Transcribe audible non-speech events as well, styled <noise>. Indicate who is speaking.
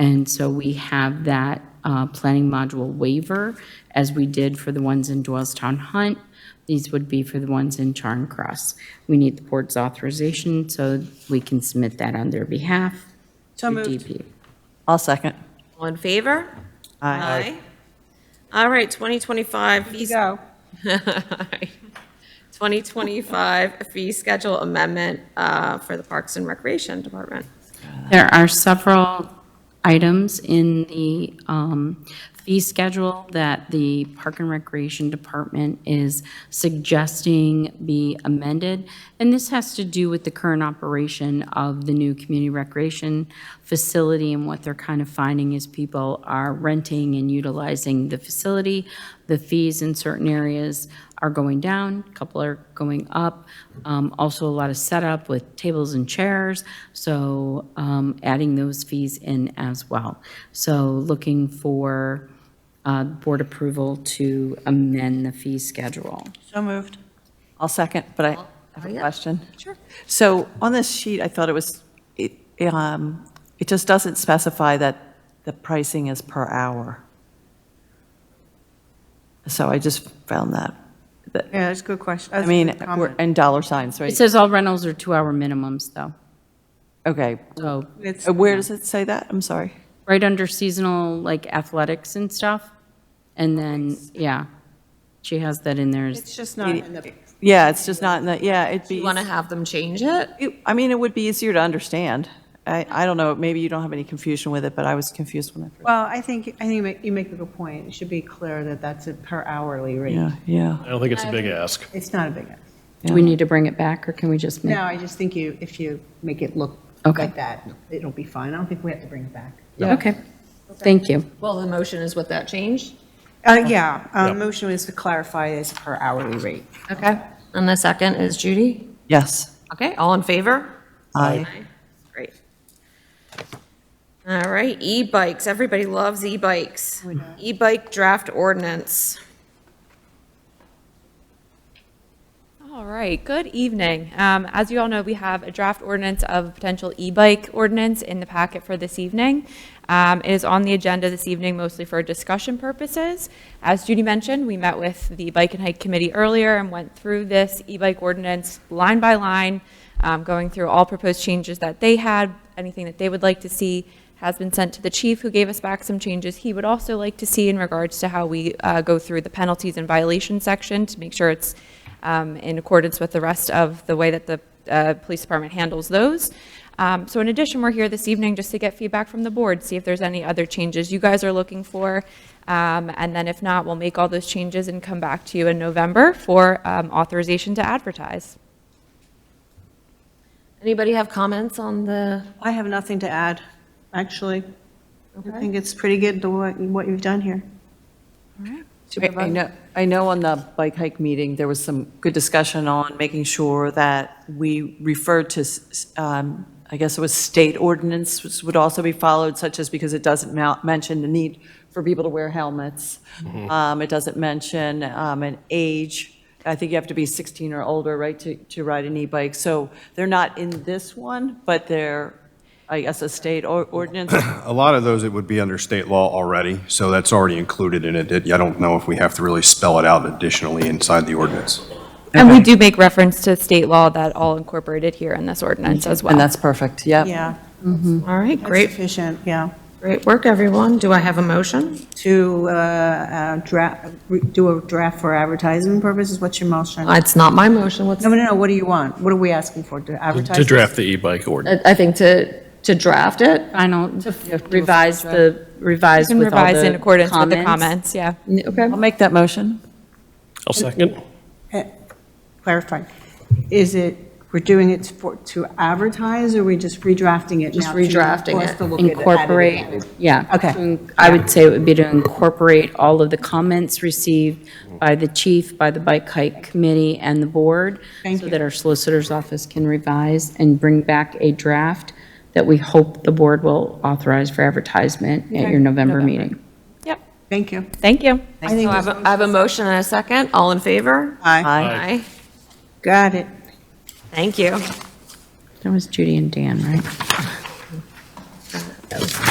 Speaker 1: And so we have that uh, planning module waiver, as we did for the ones in Doylestown Hunt. These would be for the ones in Charing Cross. We need the board's authorization so we can submit that on their behalf.
Speaker 2: So
Speaker 1: to
Speaker 2: moved.
Speaker 1: DP.
Speaker 3: I'll second.
Speaker 4: All in favor? Aye. All right, 2025 fee. <laughs>
Speaker 2: You go.
Speaker 4: Aye. 2025 fee schedule amendment uh, for the Parks and Recreation Department.
Speaker 1: There are several items in the um, fee schedule that the Park and Recreation Department is suggesting be amended, and this has to do with the current operation of the new community recreation facility, and what they're kind of finding is people are renting and utilizing the facility. The fees in certain areas are going down, a couple are going up. Um, Also, a lot of setup with tables and chairs, so um, adding those fees in as well. So looking for uh, board approval to amend the fee schedule.
Speaker 2: So moved.
Speaker 3: I'll second, but I have a question.
Speaker 4: Sure.
Speaker 3: So on this sheet, I thought it was, it, um, it just doesn't specify that the pricing is per hour. So I just found that, that,
Speaker 2: Yeah, that's a good question.
Speaker 3: I mean, we're- and dollar signs,
Speaker 1: It
Speaker 3: right?
Speaker 1: says all rentals are two-hour minimums, though.
Speaker 3: Okay,
Speaker 1: So
Speaker 2: It's,
Speaker 3: Uh, where does it say that? I'm sorry.
Speaker 1: right under seasonal, like athletics and stuff, and then, yeah, she has that in there. as-
Speaker 2: it's just not in the,
Speaker 3: Yeah, it's just not in the, yeah, it'd
Speaker 4: Do
Speaker 3: be,
Speaker 4: you want to have them change it?
Speaker 3: it- I mean, it would be easier to understand. I, I don't know, maybe you don't have any confusion with it, but I was confused when I first.
Speaker 2: well, I think, I think you make- you make a good point. It should be clear that that's a per hourly rate.
Speaker 3: Yeah, yeah.
Speaker 5: I don't think it's a big ask.
Speaker 2: It's not a big,
Speaker 1: Do we need to bring it back, or can we just make?
Speaker 2: no, I just think you, if you make it look
Speaker 1: Okay.
Speaker 2: like that, it'll be fine. I don't think we have to bring it back.
Speaker 1: Okay, thank you.
Speaker 4: Well, the motion is with that change.
Speaker 2: Uh, yeah, uh,
Speaker 5: Yeah.
Speaker 2: motion is to clarify it's per hourly rate.
Speaker 4: Okay. And the second is Judy.
Speaker 3: Yes.
Speaker 4: Okay, all in favor?
Speaker 3: I
Speaker 4: Great. All right, e-bikes. Everybody loves e-bikes. E-bike draft ordinance.
Speaker 6: All right, good evening. Um, As you all know, we have a draft ordinance of a potential e-bike ordinance in the packet for this evening. Um, It is on the agenda this evening mostly for discussion purposes. As Judy mentioned, we met with the Bike and Hike Committee earlier and went through this e-bike ordinance line by line, um, going through all proposed changes that they had, anything that they would like to see has been sent to the chief, who gave us back some changes he would also like to see in regards to how we uh, go through the penalties and violation section to make sure it's um, in accordance with the rest of the way that the uh, police department handles those. Um, So in addition, we're here this evening just to get feedback from the board, see if there's any other changes you guys are looking for. Um, And then if not, we'll make all those changes and come back to you in November for um, authorization to advertise.
Speaker 4: Anybody have comments on the?
Speaker 2: I have nothing to add, actually. I think it's pretty good, the what what you've done here.
Speaker 3: I- I know, I know on the bike hike meeting, there was some good discussion on making sure that we referred to, s- um, I guess it was state ordinance, which would also be followed, such as because it doesn't mou- mention the need for people to wear helmets. Um, It doesn't mention um, an age. I think you have to be 16 or older, right, to, to ride an e-bike. So they're not in this one, but they're, I guess, a state or- ordinance.
Speaker 7: A lot of those, it would be under state law already, so that's already included in it. It- I don't know if we have to really spell it out additionally inside the ordinance.
Speaker 6: And we do make reference to state law that all incorporated here in this ordinance as well.
Speaker 3: And that's perfect, yep.
Speaker 2: Yeah,
Speaker 4: All right,
Speaker 2: that's
Speaker 4: great,
Speaker 2: efficient, yeah.
Speaker 4: great work, everyone. Do I have a motion?
Speaker 2: To uh, uh, draft, re- do a draft for advertising purposes, what's your motion? No,
Speaker 4: Uh, It's not my motion. What's?
Speaker 2: no, no, what do you want? What are we asking for, to advertise?
Speaker 5: To draft the e-bike ordinance.
Speaker 4: I think to, to draft it.
Speaker 1: Final, revise the, revise
Speaker 6: You can
Speaker 1: with all
Speaker 6: revise in
Speaker 1: the
Speaker 6: accordance with the comments, yeah.
Speaker 4: Okay.
Speaker 3: I'll make that motion.
Speaker 5: I'll second.
Speaker 2: Clarify. Is it, we're doing it for, to advertise, or we just redrafting it now?
Speaker 4: Just
Speaker 2: to-
Speaker 4: redrafting
Speaker 2: for us
Speaker 4: it.
Speaker 2: to look at it, edit it?
Speaker 1: Incorporate, yeah.
Speaker 2: Okay.
Speaker 1: To in- I would say it would be to incorporate all of the comments received by the chief, by the bike hike committee and the board.
Speaker 2: Thank
Speaker 1: So
Speaker 2: you.
Speaker 1: that our solicitor's office can revise and bring back a draft that we hope the board will authorize for advertisement at your November meeting.
Speaker 6: Yep,
Speaker 2: Thank you.
Speaker 6: thank you.
Speaker 2: I think
Speaker 4: I have, a- I have a motion and a second. All in favor?
Speaker 2: Aye.
Speaker 4: Aye.
Speaker 2: Got it.
Speaker 4: Thank you.
Speaker 1: That was Judy and Dan, right?